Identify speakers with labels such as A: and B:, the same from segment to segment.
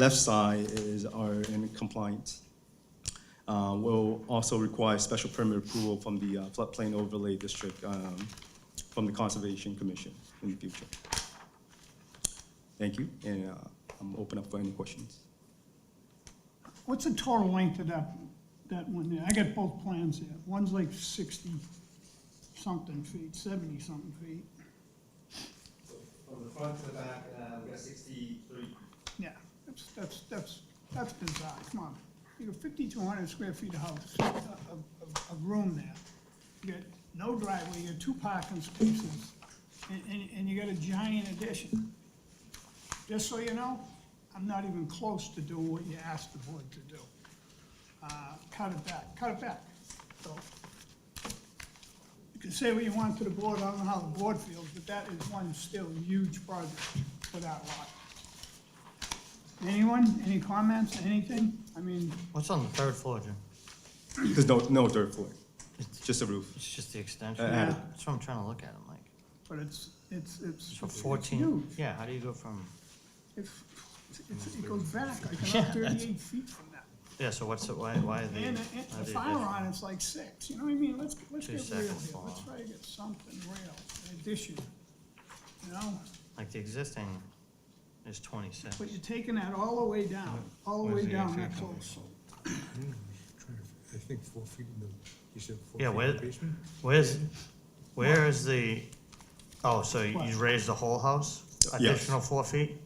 A: Left side is are in compliance. Uh, Will also require special permit approval from the uh, floodplain overlay district, um, from the Conservation Commission in the future. Thank you, and uh, I'm open up for any questions.
B: What's the total length of that, that one there? I got both plans here. One's like sixty-something feet, seventy-something feet.
C: From the front to the back, uh, we've got sixty-three.
B: Yeah, that's, that's, that's, that's bizarre, come on. You got fifty-two hundred square feet of house, uh, of, of, of room there. You got no driveway, you got two parking spaces, and, and, and you got a giant addition. Just so you know, I'm not even close to doing what you asked the board to do. Uh, cut it back, cut it back, so. You can say what you want to the board, I don't know how the board feels, but that is one still huge project for that lot. Anyone, any comments, anything? I mean,
D: What's on the third floor, Jim?
A: There's no, no dirt floor,
D: It's,
A: just a roof.
D: it's just the extension.
A: Uh,
B: uh.
D: That's what I'm trying to look at, I'm like,
B: but it's, it's, it's.
D: so
B: it's
D: fourteen,
B: huge.
D: yeah, how do you go from,
B: It's, it's, it goes back like
D: Yeah,
B: another
D: that's-
B: thirty-eight feet from that.
D: yeah, so what's, the- why, why are they?
B: And it-
D: why
B: it's,
D: are
B: the
D: they
B: fire
D: different?
B: on it's like six, you know what I mean? Let's, let's
D: Two
B: get real here.
D: seconds long.
B: Let's try to get something real, an addition, you know?
D: Like the existing is twenty-six.
B: But you're taking that all the way down, all the
D: Where's
B: way
D: the
B: down
D: entry
B: that
D: coming
B: close.
E: Trying to- I think four feet in the, you said four feet
D: Yeah,
E: in
D: where-
E: the basement?
D: Where's, where is the, oh, so you
B: What?
D: raised the whole house?
A: Yes.
D: Additional four feet?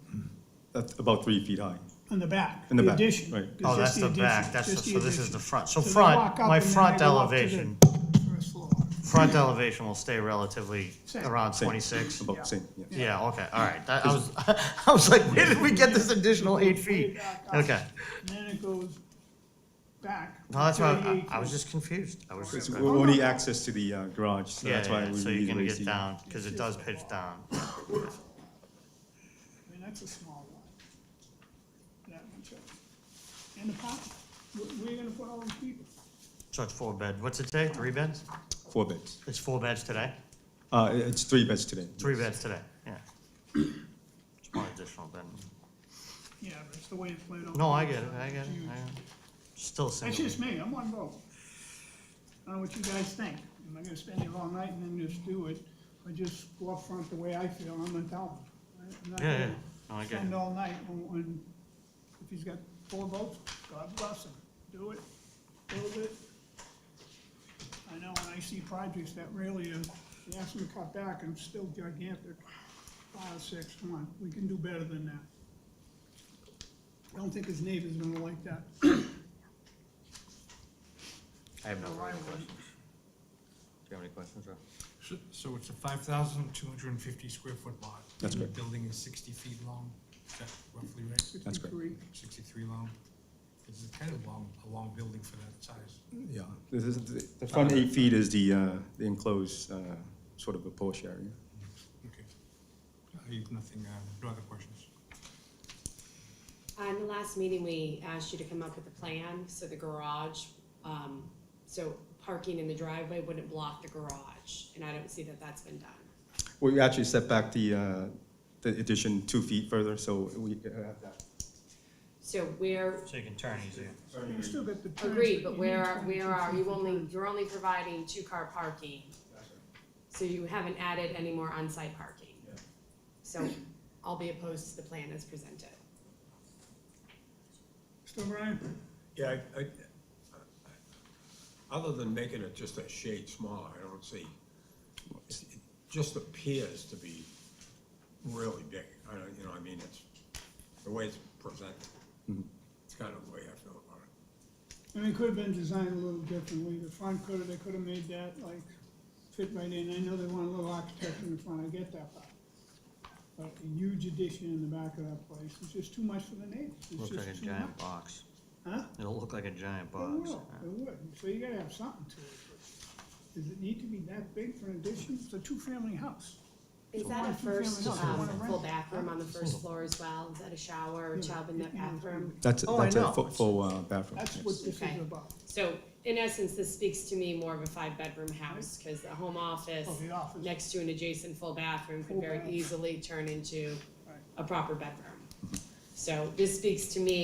A: That's about three feet high.
B: In the back,
A: In the
B: the
A: back,
B: addition.
A: right.
B: It's
D: Oh,
B: just
D: that's the
B: addition,
D: back, that's, the-
B: just
D: so this is
B: addition.
D: the front. So
B: they
D: front,
B: walk up
D: my
B: and then
D: front
B: they go up to the
D: elevation,
B: First floor.
D: front elevation will stay relatively
B: Same.
D: around
A: Same.
D: twenty-six.
B: Yeah.
A: About same, yeah.
D: Yeah, okay, all right. That, I was, I was like, where did we get this additional eight feet?
B: Oh
D: Okay.
B: And then it goes back.
D: No, that's why I,
B: 38
D: I was just confused. I was
A: It's
D: just,
B: Whatever.
A: only access to the uh, garage, so
D: yeah,
A: that's why
D: yeah,
A: we
D: so you're
A: need
D: gonna
A: raised
D: get
A: the-
D: down, cause it does pitch down.
B: I mean, that's a small one. That much of it. And the parking, where, where you gonna put all these people?
D: So it's four bed, what's it today, three beds?
A: Four beds.
D: It's four beds today,
A: Uh, it's three beds today.
D: three beds today, yeah. It's one additional bed.
B: Yeah, but it's the way it's laid out.
D: No, I get it, I get it, I get it. Still
B: That's
D: single.
B: just me, I'm one vote. I don't know what you guys think. Am I gonna spend it all night and then just do it, or just go up front the way I feel, I'm gonna tell him. I'm not
D: Yeah, yeah,
B: gonna
D: no, I get
B: Spend
D: it.
B: all night on, on, if he's got four votes, God bless him, do it, build it. I know when I see projects that really are, you ask them to cut back and it's still gigantic, five, six, come on, we can do better than that. I don't think his neighbor's gonna like that,
D: I have no
B: or
D: further
B: I
D: questions.
B: would.
D: Do you have any questions, Rob?
E: So- So it's a five thousand two hundred and fifty square foot lot?
A: That's
E: and
A: correct.
E: The building is sixty feet long, is that roughly right?
A: That's great.
B: 63.
E: Sixty-three long? It's kind of long, a long building for that size.
A: Yeah, this is, the- the front eight feet is the uh, the enclosed, uh, sort of a porch area.
E: Okay. I have nothing, uh, no other questions.
F: Uh, In the last meeting, we asked you to come up with a plan, so the garage, um, so parking in the driveway wouldn't block the garage, and I don't see that that's been done.
A: We actually set back the, uh, the addition two feet further, so we uh, have that.
F: So where,
D: So you can turn easier.
B: You still got the turns,
F: agreed,
B: you
F: but where
B: need
F: are, where
B: 22
F: are, you
B: feet.
F: only, you're only providing two-car parking. So you haven't added any more on-site parking. So I'll be opposed to the plan as presented.
B: Still Brian?
G: Yeah, I, I, other than making it just a shade smaller, I don't see, it it just appears to be really big. I don't, you know, I mean, it's, the way it's presented, it's kind of the way I feel about it.
B: I mean, it could have been designed a little differently, the front could have, they could have made that like fit right in, I know they want a little architecture in front, I get that part. But a huge addition in the back of that place, it's just too much for the neighbors, it's
D: Looks like a
B: just too much.
D: giant box.
B: Huh?
D: It'll look like a giant
B: It
D: box.
B: will, it would, so you gotta have something to it, but does it need to be that big for an addition, it's a two-family house.
F: Is
B: So
F: that
B: why
F: a
B: do you
F: first,
B: family house?
F: um,
B: They wanna
F: full
B: rent it.
F: bathroom on the
B: Oh.
F: first floor as well? Is that a shower, child
B: You
F: in the
B: know, it's gonna
F: bathroom?
B: be-
A: That's,
D: Oh, I
A: that's a
D: know.
A: fu- full uh, bathroom,
B: That's
A: yes.
B: what this is
F: Okay.
B: about,
F: So in essence, this speaks to me more of a five-bedroom house, because the home office
B: Oh, the office.
F: next to an adjacent full bathroom
B: Full
F: could very
B: bath.
F: easily turn into
B: Right.
F: a proper bedroom. So this speaks to me